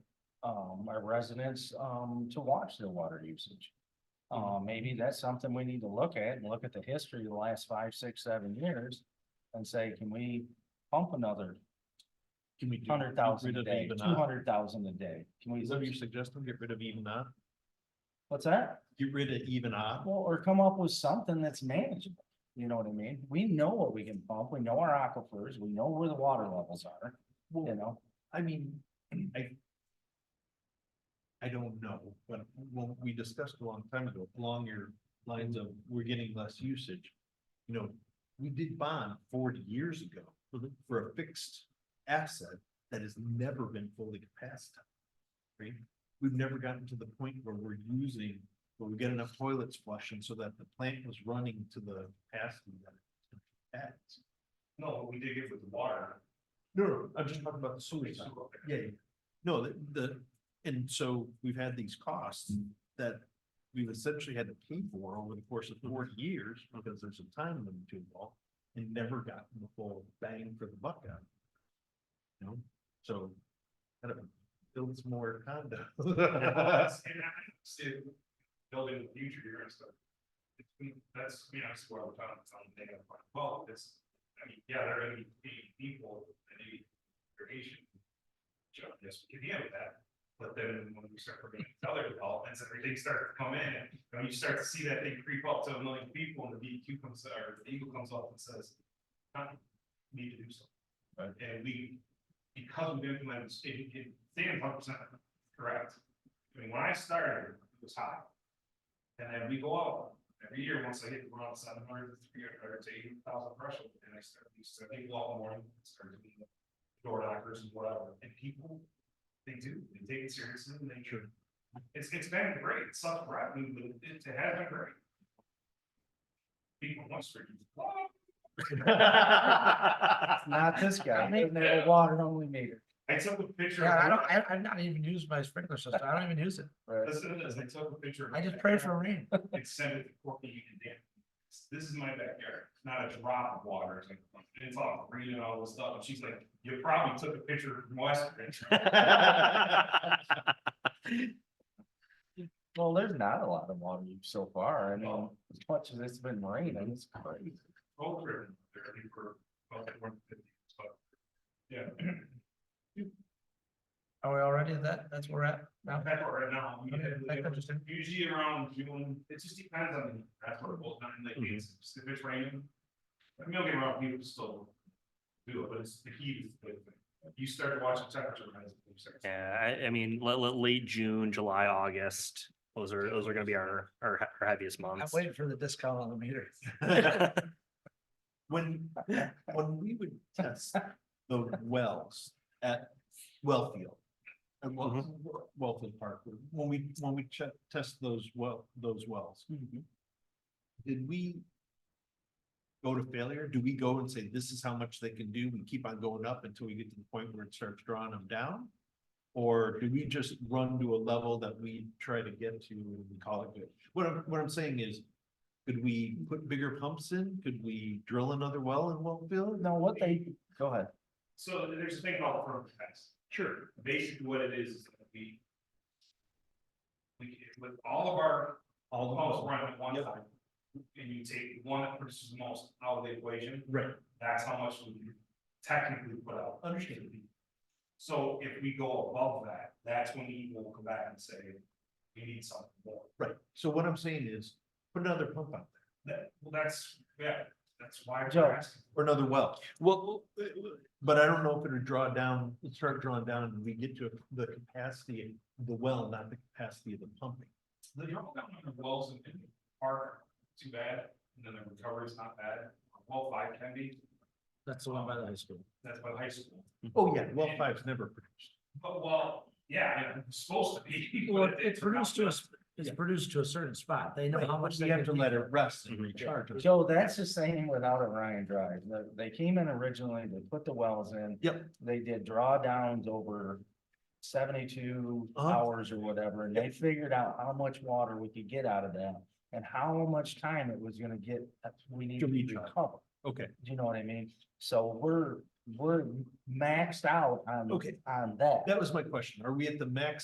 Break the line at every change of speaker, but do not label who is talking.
um, our residents, um, to watch their water usage. Uh,
Mm-hmm.
maybe that's something we need to look at and look at the history of the last five, six, seven years and say, can we pump another
Can we do-
hundred
get
thousand
rid
a
of
day,
even
two
that?
hundred thousand a day? Can
Is that what
we,
you're suggesting? Get rid of even that?
what's that?
Get rid of even odd?
Well, or come up with something that's manageable, you know what I mean? We know what we can pump, we know our aquifers, we know where the water levels are, you know?
I mean, I. I don't know, but when we discussed a long time ago, along your lines of we're getting less usage. You know, we did bond forty years ago for a fixed asset that has never been fully capacitated. Right? We've never gotten to the point where we're using, where we get enough toilets flushing so that the plant was running to the capacity that it has.
No, we did it with the water.
No, no, I'm just talking about the sewage.
It's-
Yeah, yeah. No, the, the, and so we've had these costs
Mm-hmm.
that we've essentially had to pay for over the course of
Mm-hmm.
forty years because there's some time limit to involve and never gotten the full bang for the buck out. of it. You know, so kind of builds more condos.
And I still building in the future here and stuff. It's- That's, you know, that's where we're talking, it's on the day of, like, well, this, I mean, yeah, there are gonna be pe- people that need irrigation. Jump this, we can deal with that, but then when we start looking at other developments, everything starts to come in, and when you start to see that thing creep up to a million people, and the DEQ comes, or the Eagle comes up and says. "Huh, we Need to do something, and we, because we've implemented, it, it, Sam's hundred percent correct. I mean, when I started, it was high. And then we go out, every year, once I hit around seven hundred, three hundred, to eight thousand threshold, and I start, we start, they go out in the morning, start doing the Door knockers and whatever, and people, they do, they take it seriously, and they should. It's, it's been great, it's not right, but it, it has been great. People want to.
Not this guy, and they have a water only meter.
I took a picture.
Yeah, I don't, I, I've not even used my sprinkler system. I don't even use it.
Listen to this, I took a picture. of
I just
my
pray
backyard.
for rain.
and send it to Courtney Union Dam. This is my backyard, It's not a drop of water, it's like, and it's all green and all this stuff, and she's like, you probably took a picture from Western.
Well, there's not a lot of water use so far, I mean, as much as it's been raining, it's crazy.
Both written, they're ready for, about one fifty, so. Yeah,
Are we already at that? That's where we're at now?
that's what right now, we
Okay,
have-
that's interesting.
usually around June, it just depends on, the- that's what it boils down, to, like, it's, if it's raining. I mean, don't get me wrong, people still do it, but it's the heat is the big thing. You start watching temperature rise. you start-
Yeah, I, I mean, late, late June, July, August, those are, those are gonna be our, our, he- our heaviest
I'm
months.
waiting for the discount on the meter.
When, when we would test the wells at Wellfield. And well, Wellfield Park, when we, when we check, test those well, those wells. Did we? Go to failure? Do we go and say, this is how much they can do? We keep on going up until we get to the point where it starts drawing them down? Or do we just run to a level that we try to get to and we call it good? What I'm, what I'm saying is. Could we put bigger pumps in? Could we drill another well in Wellfield?
No, what they, go ahead.
So there's a thing called firm defense. Sure. Basically what it is, is that we. We, with all of our,
All
almost run at one
Yep.
time. And you take one that produces the most out of the equation,
Right,
that's how much we can technically put out.
Understood.
So if we go above that, that's when we will come back and say, we need something more.
right. So what I'm saying is, put another pump out there,
That, well, that's, yeah, that's why
Joe.
we're asking.
or another well.
Well,
But I don't know if it would draw down, it'd start drawing down and we get to the capacity, of the well, not the capacity of the pumping.
The drop down on the wells in in the park, too bad, and then the recovery's not bad, well five can be,
That's the
one by the
high school.
that's by high school.
Oh, yeah, well five's never produced.
But well, yeah, it's supposed to be.
Well,
but
it's produced to us, it's
Yeah.
produced to a certain spot. They know how much they
We have to
can
let
do.
it rest and
Mhm.
recharge. it.
Joe, that's the same without Orion Drive, The- they came in originally, they put the wells in.
Yep.
They did drawdowns over seventy-two
Uh-huh.
hours or whatever, and they figured out how much water we could get out of that. And how much time it was gonna get, that we need to
recharge.
recover,
Okay,
you know what I mean? So we're, we're maxed out on,
okay.
on that.
That was my question. Are we at the max